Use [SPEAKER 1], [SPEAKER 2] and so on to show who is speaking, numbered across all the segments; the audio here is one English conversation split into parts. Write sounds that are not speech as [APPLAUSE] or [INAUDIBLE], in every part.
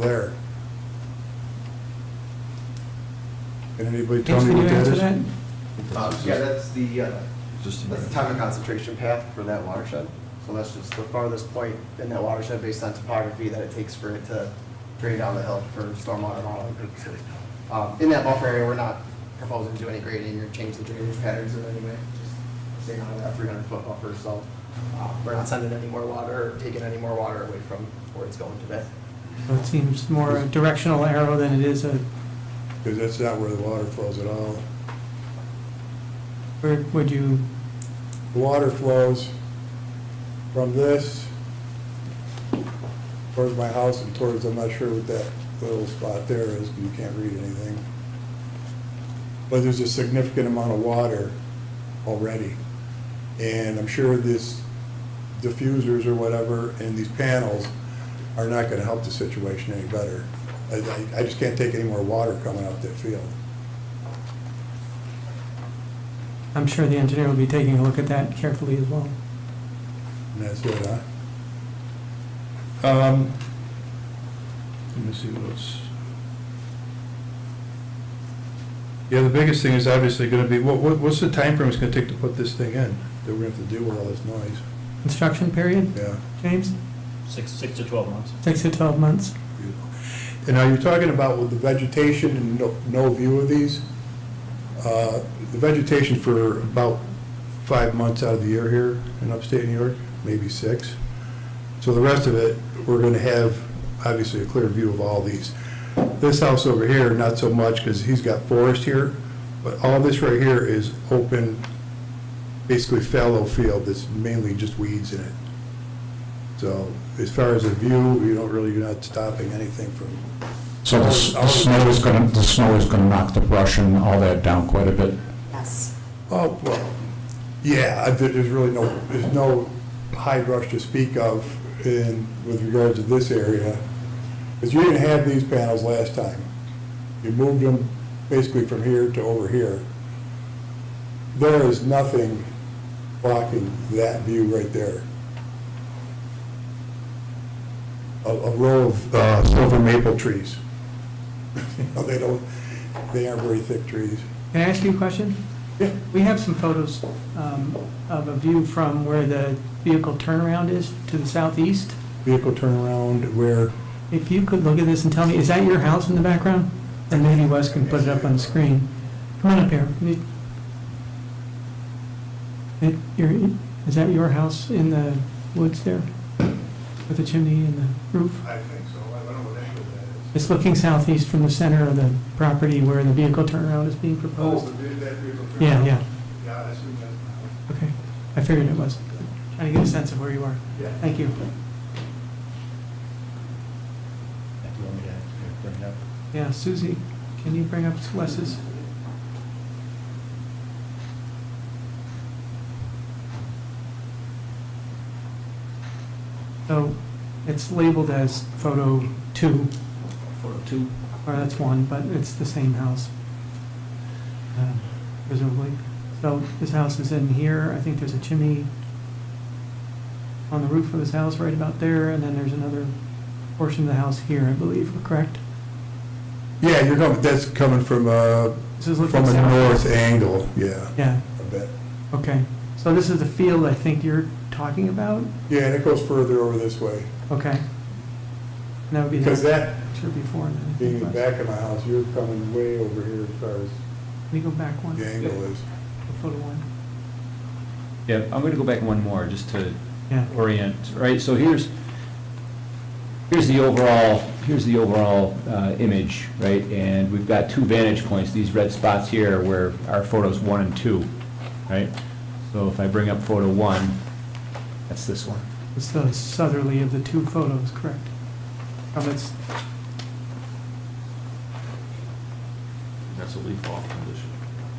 [SPEAKER 1] there. Can anybody tell
[SPEAKER 2] Vince,
[SPEAKER 1] me
[SPEAKER 2] can you
[SPEAKER 1] what that
[SPEAKER 2] answer
[SPEAKER 1] is?
[SPEAKER 2] that?
[SPEAKER 3] Uh, Yeah, that's the, uh,
[SPEAKER 4] Just in
[SPEAKER 3] that's the
[SPEAKER 4] there.
[SPEAKER 3] time of concentration path for that watershed. So that's just the farthest point in that watershed based on topography that it takes for it to drain down the hill for stormwater modeling purposes. Um, In that buffer area, we're not proposing to do any grading or change the drainage patterns in any way, just staying on that 300-foot buffer, so uh, we're not sending any more water, or taking any more water away from where it's going to be.
[SPEAKER 2] It seems more a directional arrow than it is a,
[SPEAKER 1] Because that's not where the water flows at all.
[SPEAKER 2] where would you,
[SPEAKER 1] The water flows from this towards my house and towards, I'm not sure what that little spot there is, but you can't read anything. But there's a significant amount of water already. And I'm sure this diffusers or whatever and these panels are not gonna help the situation any better. I, I- I just can't take any more water coming out that field.
[SPEAKER 2] I'm sure the engineer will be taking a look at that carefully as well.
[SPEAKER 1] And that's it, huh?
[SPEAKER 4] Um, let me see what's. Yeah, the biggest thing is obviously gonna be, what, what, what's the timeframe it's gonna take to put this thing in?
[SPEAKER 1] That we're gonna have to deal with all this noise,
[SPEAKER 2] Construction period,
[SPEAKER 1] yeah.
[SPEAKER 2] James?
[SPEAKER 5] Six, six to 12 months.
[SPEAKER 2] Six to 12 months?
[SPEAKER 1] And are you talking about with the vegetation and no, no view of these? Uh, The vegetation for about five months out of the year here in upstate New York, maybe six. So the rest of it, we're gonna have obviously a clear view of all these. This house over here, not so much, because he's got forest here, but all this right here is open, basically fallow field that's mainly just weeds in it. So as far as a view, you don't really, you're not stopping anything from,
[SPEAKER 6] So the s- the snow is going to, the snow is going to knock the brush and all that down quite a bit.
[SPEAKER 7] Yes.
[SPEAKER 1] oh, well, yeah, I- there- there's really no, there's no high rush to speak of in, with regards to this area. Because you didn't have these panels last time. You moved them basically from here to over here. There is nothing blocking that view right there. A, a row of uh, silver maple trees. [LAUGHS] They don't, they aren't very thick trees. [LAUGHS]
[SPEAKER 2] Can I ask you a question?
[SPEAKER 1] Yeah.
[SPEAKER 2] We have some photos um, of a view from where the vehicle turnaround is to the southeast.
[SPEAKER 1] Vehicle turnaround where,
[SPEAKER 2] If you could look at this and tell me, is that your house in the background? And maybe Wes can put it up on the screen. Come on up here. You- It- your- Is that your house in the woods there? With the chimney and the roof?
[SPEAKER 8] I think so, I don't know what angle that is.
[SPEAKER 2] It's looking southeast from the center of the property where the vehicle turnaround is being
[SPEAKER 8] Oh,
[SPEAKER 2] proposed.
[SPEAKER 8] the big, that vehicle.
[SPEAKER 2] Yeah, yeah,
[SPEAKER 8] Yeah, I assume that's my
[SPEAKER 2] okay. I figured it was. Trying to get a sense of where you are.
[SPEAKER 8] house.
[SPEAKER 2] Thank you.
[SPEAKER 5] You want me to bring it up?
[SPEAKER 2] Yeah, Susie, can you bring up Wes's? So it's labeled as photo two,
[SPEAKER 5] Photo two.
[SPEAKER 2] or that's one, but it's the same house, uh, presumably. So this house is in here, I think there's a chimney on the roof of this house right about there, and then there's another portion of the house here, I believe, correct?
[SPEAKER 1] yeah, you're coming, that's coming from a,
[SPEAKER 2] This is looking
[SPEAKER 1] from a
[SPEAKER 2] south.
[SPEAKER 1] north angle, yeah,
[SPEAKER 2] Yeah,
[SPEAKER 1] I bet.
[SPEAKER 2] okay. So this is the field I think you're talking about?
[SPEAKER 1] Yeah, and it goes further over this way.
[SPEAKER 2] Okay. And that would be
[SPEAKER 1] Because
[SPEAKER 2] the
[SPEAKER 1] that,
[SPEAKER 2] picture before and then. I
[SPEAKER 1] being
[SPEAKER 2] think
[SPEAKER 1] the
[SPEAKER 2] was-
[SPEAKER 1] back of my house, you're coming way over here as far as
[SPEAKER 2] Can we go back one?
[SPEAKER 1] the angle is.
[SPEAKER 2] The photo one?
[SPEAKER 9] Yeah, I'm gonna go back one more, just to
[SPEAKER 2] Yeah,
[SPEAKER 9] orient, right? So here's, here's the overall, here's the overall uh, image, right? And we've got two vantage points, these red spots here where our photos one and two, right? So if I bring up photo one, that's this one.
[SPEAKER 2] it's the southerly of the two photos, correct? Oh, From its,
[SPEAKER 4] That's a leaf off condition.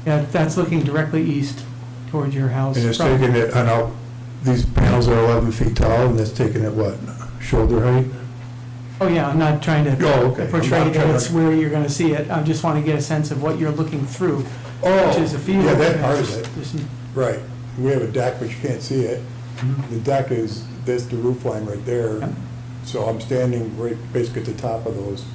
[SPEAKER 2] yeah, that's looking directly east toward your house.
[SPEAKER 1] And it's
[SPEAKER 2] from-
[SPEAKER 1] taking it, I know, these panels are 11 feet tall, and that's taking it what, shoulder height?
[SPEAKER 2] Oh, yeah, I'm not trying to
[SPEAKER 1] Oh, okay. I'm
[SPEAKER 2] portray
[SPEAKER 1] not
[SPEAKER 2] that
[SPEAKER 1] trying
[SPEAKER 2] it's
[SPEAKER 1] to-
[SPEAKER 2] where you're going to see it. I just want to get a sense of what you're looking through, which is a
[SPEAKER 1] Oh,
[SPEAKER 2] field.
[SPEAKER 1] yeah, that
[SPEAKER 2] and
[SPEAKER 1] part
[SPEAKER 2] it's
[SPEAKER 1] of it,
[SPEAKER 2] just- just-
[SPEAKER 1] right. We have a deck, but you can't see it. The deck is, that's the roof line right there.
[SPEAKER 2] Mm-hmm. Yep.
[SPEAKER 1] So I'm standing right, basically at the top of those